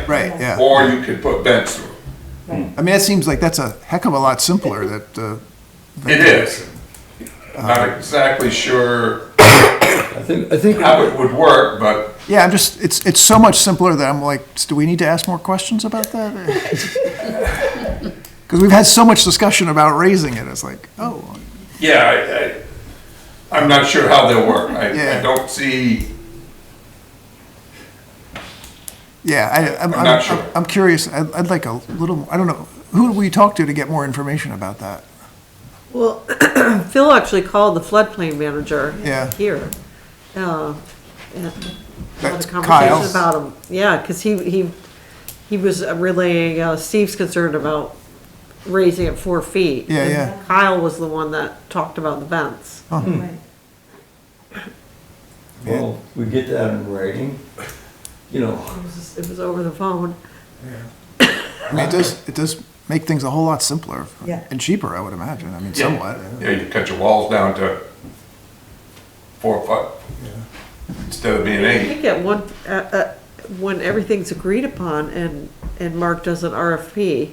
right, right, yeah. Or you could put vents through. I mean, that seems like that's a heck of a lot simpler that, uh. It is. Not exactly sure I think, I think, how it would work, but Yeah, I'm just, it's, it's so much simpler that I'm like, do we need to ask more questions about that? Because we've had so much discussion about raising it, it's like, oh, yeah, I, I, I'm not sure how they'll work. I, I Yeah. don't see, yeah, I, I'm, I'm not I'm- sure. I'm curious, I'd, I'd like a little, I don't know, who do we talk to to get more information about that? Well, Phil actually called the floodplain manager Yeah. here. uh, and Had That's a conversation Kyle's. about him, yeah, because he, he, he was relaying uh, Steve's concern about raising it four feet. Yeah, And yeah. Oh. Kyle was the one that talked about the vents. well, we get that in writing, you know, It was it was over the phone. I mean, it does, it does make things a whole lot simpler. Yeah. And cheaper, I would imagine, I mean, somewhat. yeah, you cut your walls down to four foot instead of being I eight. think at one, uh, uh, when everything's agreed upon and, and Mark does an RFP,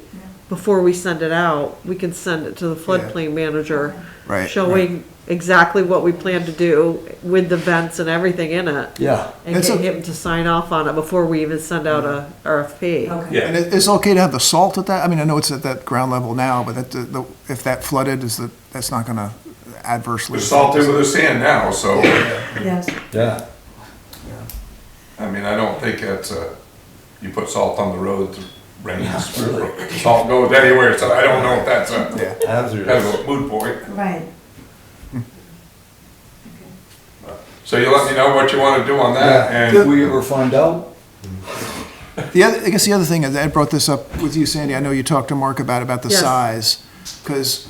before we send it out, we can send it to the floodplain manager. Right, Showing exactly what we plan to do with the vents and everything in it. yeah. And That's get a- him to sign off on it before we even send out a RFP. Okay. And Yeah, it- it's okay to have the salt at that, I mean, I know it's at that ground level now, but that, the- the- if that flooded, is that, that's not gonna adversely. we're salted with the sand now, so, Yes. Yeah. I mean, I don't think that's a, you put salt on the road, rains, salt goes anywhere, so I don't know if that's a, Yeah. kind Hazardous. of a moot point. Right. So you let me know what you wanna do on that, and. If we ever find out, The other, I guess the other thing, is Ed brought this up with you, Sandy, I know you talked to Mark about, about the Yes. size. Because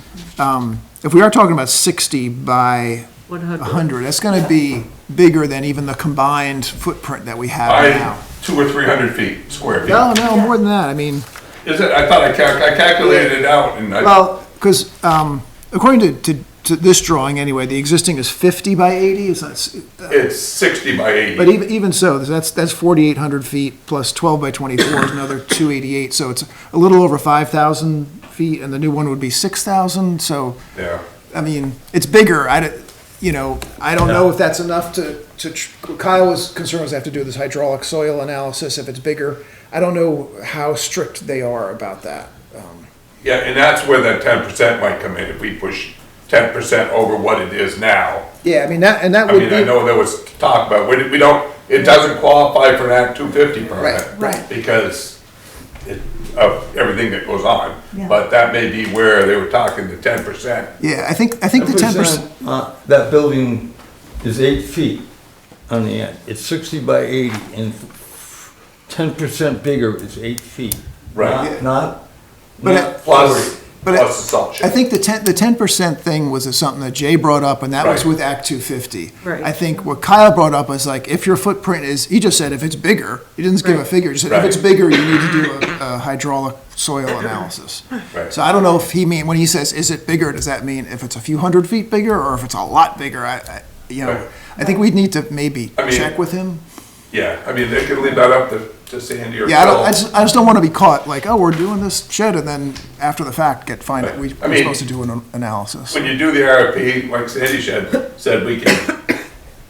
if we are talking about 60 by One hundred. 100, that's going to be bigger than even the combined footprint that we have By now. two or three hundred feet, square feet. No, no, more than that, I mean, Is it, I thought I calc, I calculated it out and I, well, because according to- to, to this drawing anyway, the existing is 50 by 80, is that, it's sixty by But eighty. even, even so, that's, that's forty-eight hundred feet plus twelve by twenty-four is another two eighty-eight, so it's a little over five thousand feet, and the new one would be six thousand, so, Yeah, I mean, it's bigger, I, don't- you know, I don't know if that's enough to, to, tr- Kyle was concerned was I have to do this hydraulic soil analysis if it's bigger. I don't know how strict they are about that. yeah, and that's where that ten percent might come in, if we push ten percent over what it is now. Yeah, I mean, that, and that I would mean, be. I know there was talk about, we, we don't, it doesn't qualify for an Act two fifty permit. Right, right. Because it, of everything that goes on, Yeah. but that may be where they were talking the ten percent. Yeah, I think, I think the ten percent, Uh, That building is eight feet on the end, it's sixty by eighty, and ten percent bigger is eight feet. Right. Not- Yeah. Not, But not it- Plus, But I- plus the salt I shed. think the ten, the ten percent thing was something that Jay brought up, and that was Right. with Act two fifty. Right. I think what Kyle brought up is like, if your footprint is, he just said if it's bigger, he didn't give a Right. figure, he said if Right. it's bigger, you need to do a, a hydraulic soil analysis. Right. So I don't know if he mean, when he says, is it bigger, does that mean if it's a few hundred feet bigger, or if it's a lot bigger, I, I, you Right. know, I think we'd need to maybe I mean- check with him. Yeah, I mean, they could leave that up to, to Sandy or Phil. Yeah, I don't, I just, I just don't wanna be caught like, oh, we're doing this shed, and then after the fact, get, find that we, I we're mean- supposed to do an analysis. When you do the RFP, like Sandy said, said we can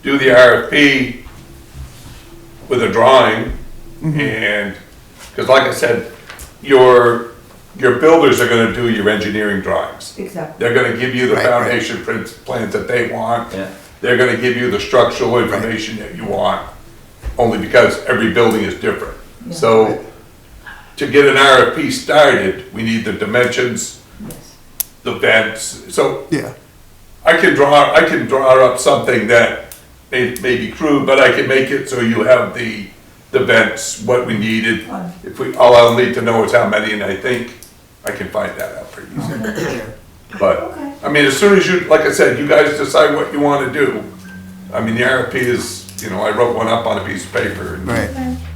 do the RFP with a drawing Mm-hmm. and, because like I said, your, your builders are gonna do your engineering drawings. Exactly. They're gonna give you the Right, right. foundation prin- plans that they want. Yeah. They're gonna give you the structural information that you want, only because every building is different. So to get an RFP started, we need the dimensions, Yes. the vents, so Yeah. I can draw, I can draw up something that may, may be crude, but I can make it so you have the, the vents, what we needed. If we, all I'll need to know is how many, and I think I can find that out pretty easily. But, Okay. I mean, as soon as you, like I said, you guys decide what you wanna do. I mean, the RFP is, you know, I wrote one up on a piece of paper. and- Right.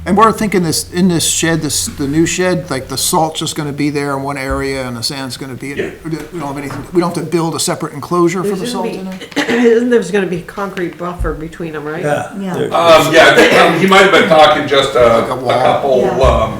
And we're thinking this, in this shed, this, the new shed, like the salt's just gonna be there in one area and the sand's gonna be, Yeah. in- we don't have anything, we don't have to build a separate enclosure for the There's salt gonna be, in it? isn't there's gonna be a concrete buffer between them, right? yeah. Uh, Yeah. there- Um, yeah, I think, um, he might have been talking just a, Like a a wall. couple, Yeah. um,